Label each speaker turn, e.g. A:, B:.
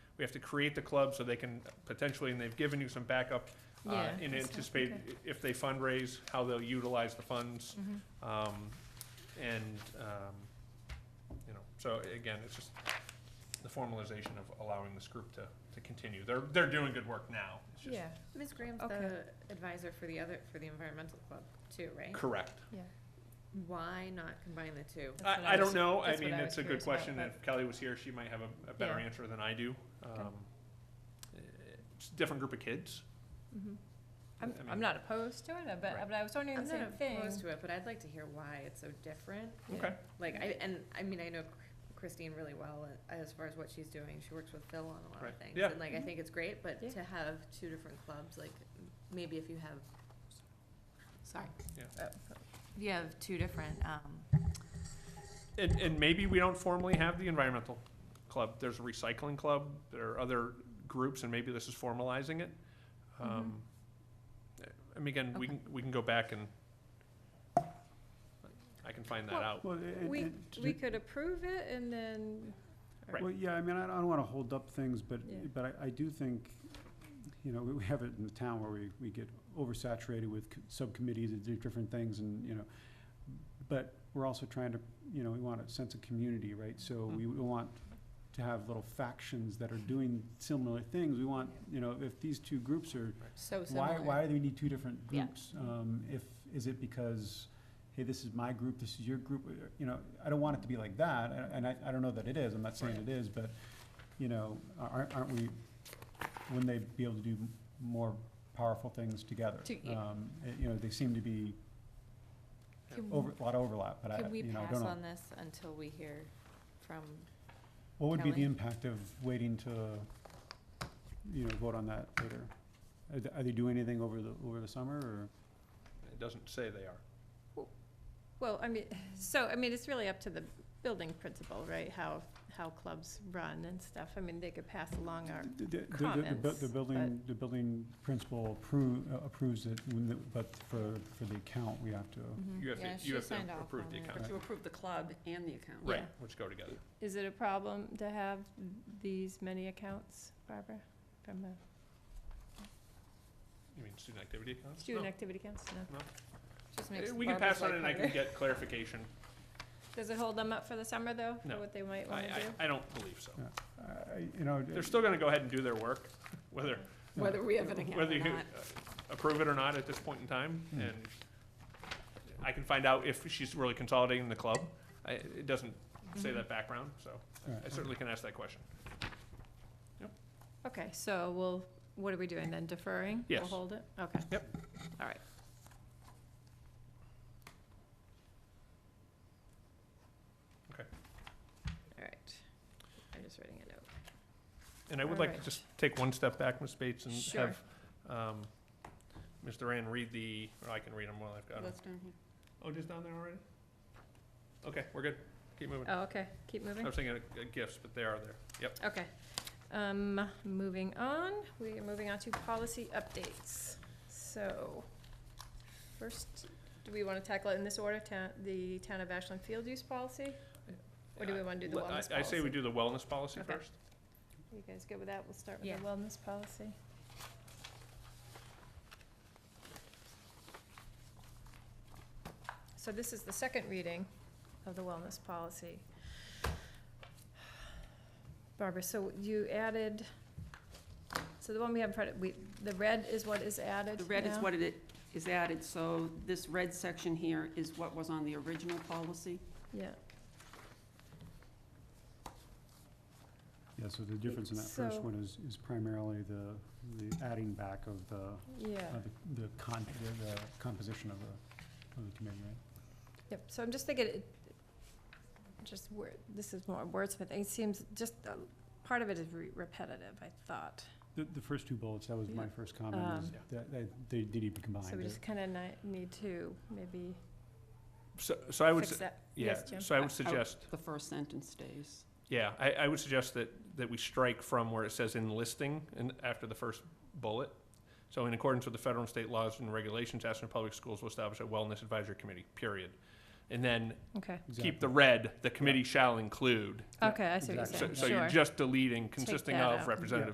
A: we have to create the club so they can potentially, and they've given you some backup uh,
B: Yeah,
A: in
B: that's-
A: anticipate
B: okay.
A: i- if they fundraise, how they'll utilize the funds.
B: Mhm.
A: Um, and, um, you know, so again, it's just the formalization of allowing this group to, to continue. They're, they're doing good work now. It's just-
B: Yeah,
C: Ms. Graham's
B: Okay.
C: the advisor for the other, for the environmental club too, right?
A: Correct.
B: yeah.
C: Why not combine the two?
B: That's what
A: I, I
B: was-
A: don't know. I
B: that's what
A: mean,
B: was
A: it's a good
B: curious about,
A: question.
B: but-
A: If Kelly was here, she might have a, a better
B: Yeah.
A: answer than I do. Um, It's a different group of kids.
B: Mhm.
A: I
B: I'm,
A: mean-
B: I'm not opposed to it, I bet,
A: Right.
B: but I was wondering
C: I'm
B: the
C: not
B: same thing.
C: opposed to it, but I'd like to hear why it's so different.
B: Yeah.
A: Okay.
C: Like, I, and, I mean, I know Christine really well a- as far as what she's doing. She works with Phil on a lot
A: Right.
C: of things.
A: Yeah.
C: And like, I
B: Mhm.
C: think it's great, but
B: Yeah.
C: to have two different clubs, like, m- maybe if you have, sorry.
A: Yeah.
C: Uh,
B: Oh,
C: If you have two different, um,
A: And, and maybe we don't formally have the environmental club. There's a recycling club, there are other groups, and maybe this is formalizing it.
B: Mm-hmm.
A: Um, I mean, again, we
C: Okay.
A: can, we can go back and I can find that
B: Well,
A: out.
D: Well, it-
B: We,
D: it-
B: we could approve it and then,
A: Right.
D: Well, yeah, I mean, I don't want to hold up things, but,
B: Yeah.
D: but I- I do think, you know, we have it in the town where we, we get oversaturated with c- subcommittees that do different things and, you know, but we're also trying to, you know, we want a sense of community, right? So
B: Mm-hmm.
D: we don't want to have little factions that are doing similar things. We want, you know, if these two groups are
B: so
D: why,
B: similar.
D: why do we need two different
B: Yeah.
D: groups? Um, if, is it because, hey, this is my group, this is your group, uh, you know, I don't want it to be like that, a- and I, I don't know that it is, I'm not saying
B: Right.
D: it is, but, you know, a- aren't, aren't we, wouldn't they be able to do m- more powerful things together?
B: To- yeah.
D: Um, it- you know, they seem to be
B: Can-
D: over, a lot of overlap, but I,
B: Could we
D: you know, I
B: pass
D: don't know.
B: on this until we hear from,
D: What would be
B: Kelly?
D: the impact of waiting to, you know, vote on that later? Are they, are they doing anything over the, over the summer, or?
A: It doesn't say they are.
B: well, I mean, so, I mean, it's really up to the building principal, right? How, how clubs run and stuff. I mean, they could pass along our,
D: The- the- the- the- The bu-
B: comments,
D: the
B: but-
D: building, the building principal approve- uh, approves it, when the- but for, for the account, we have to,
C: Mm-hmm.
A: You have
B: Yeah,
A: to,
B: she
A: you have to
B: signed off
A: approve
B: on
A: the
B: it.
A: account.
E: To approve the club and the account.
A: Right,
B: Yeah.
A: which go together.
B: is it a problem to have these many accounts, Barbara? From the
A: You mean student activity accounts?
B: student
A: No.
B: activity accounts, no?
C: just
A: Uh,
C: makes
A: We can
C: Barbara's
A: pass on
C: life
A: it and I
C: harder.
A: can get clarification.
B: Does it hold them up for the summer, though?
A: No.
B: For what they might
A: I,
B: wanna
A: I,
B: do?
A: I don't believe so.
D: I- you know. uh,
A: They're still gonna go ahead and do their work, whether,
E: Whether we have an account
A: whether
E: or
A: you
E: not.
A: uh, approve it or not at this point in time,
D: Hmm.
A: and I can find out if she's really consolidating the club. I, it doesn't say
B: Mhm.
A: that background, so I
D: Right.
A: certainly can ask that question.
B: Okay, so we'll, what are we doing then, deferring?
A: Yes.
B: We'll hold it, okay.
A: Yep.
B: All right.
A: Okay.
B: All right, I'm just writing a note.
A: And I would like to
B: Alright.
A: just take one step back, Ms. Bates, and
B: Sure.
A: have, um, Ms. Duran read the, or I can read them while I've got them.
E: That's down here.
A: Oh, just down there already? Okay, we're good. Keep moving.
B: Oh, okay, keep moving.
A: I was thinking of uh, gifts, but they are there. Yep.
B: Okay, um, moving on, we are moving on to policy updates. So, first, do we wanna tackle it in this order, town, the town of Ashland field use policy? Or do we wanna do the
A: Let- I-
B: wellness policy?
A: I say we do the wellness policy
B: Okay.
A: first.
B: You guys good with that? We'll start with
C: Yeah.
B: the wellness policy. So this is the second reading of the wellness policy. Barbara, so you added, so the one we have in front of, we, the red is what is added
E: The red is
B: now?
E: what it is added, so this red section here is what was on the original policy.
B: Yeah,
D: Yeah, so the difference in that first
B: So-
D: one is, is primarily the, the adding back of the,
B: yeah.
D: of the- the con, the- the composition of the, of the committee, right?
B: Yep, so I'm just thinking, it- just word, this is more wordsmith, it seems, just, uh, part of it is re- repetitive, I thought.
D: The, the first two bullets, that was my
E: Yeah.
D: first comment, is
A: Um,
D: that, that they did even combine.
B: So we
D: They're-
B: just kind of need to maybe
A: So, so I would,
B: fix
A: s-
B: that.
A: yeah,
B: Yes, Jim? Oh.
A: so
E: I-
A: I
E: I
A: would
E: would-
A: suggest,
E: The first sentence stays.
A: yeah, I, I would suggest that, that we strike from where it says enlisting and after the first bullet. So in accordance with the federal and state laws and regulations, Ashland Public Schools will establish a wellness advisory committee, period. and then
B: Okay,
A: keep the red, the committee shall include.
D: Yeah,
B: okay, I see what you're
D: exactly.
A: So,
B: saying,
A: so
B: sure.
A: you're just deleting consisting
B: that
A: of
B: out.
A: representative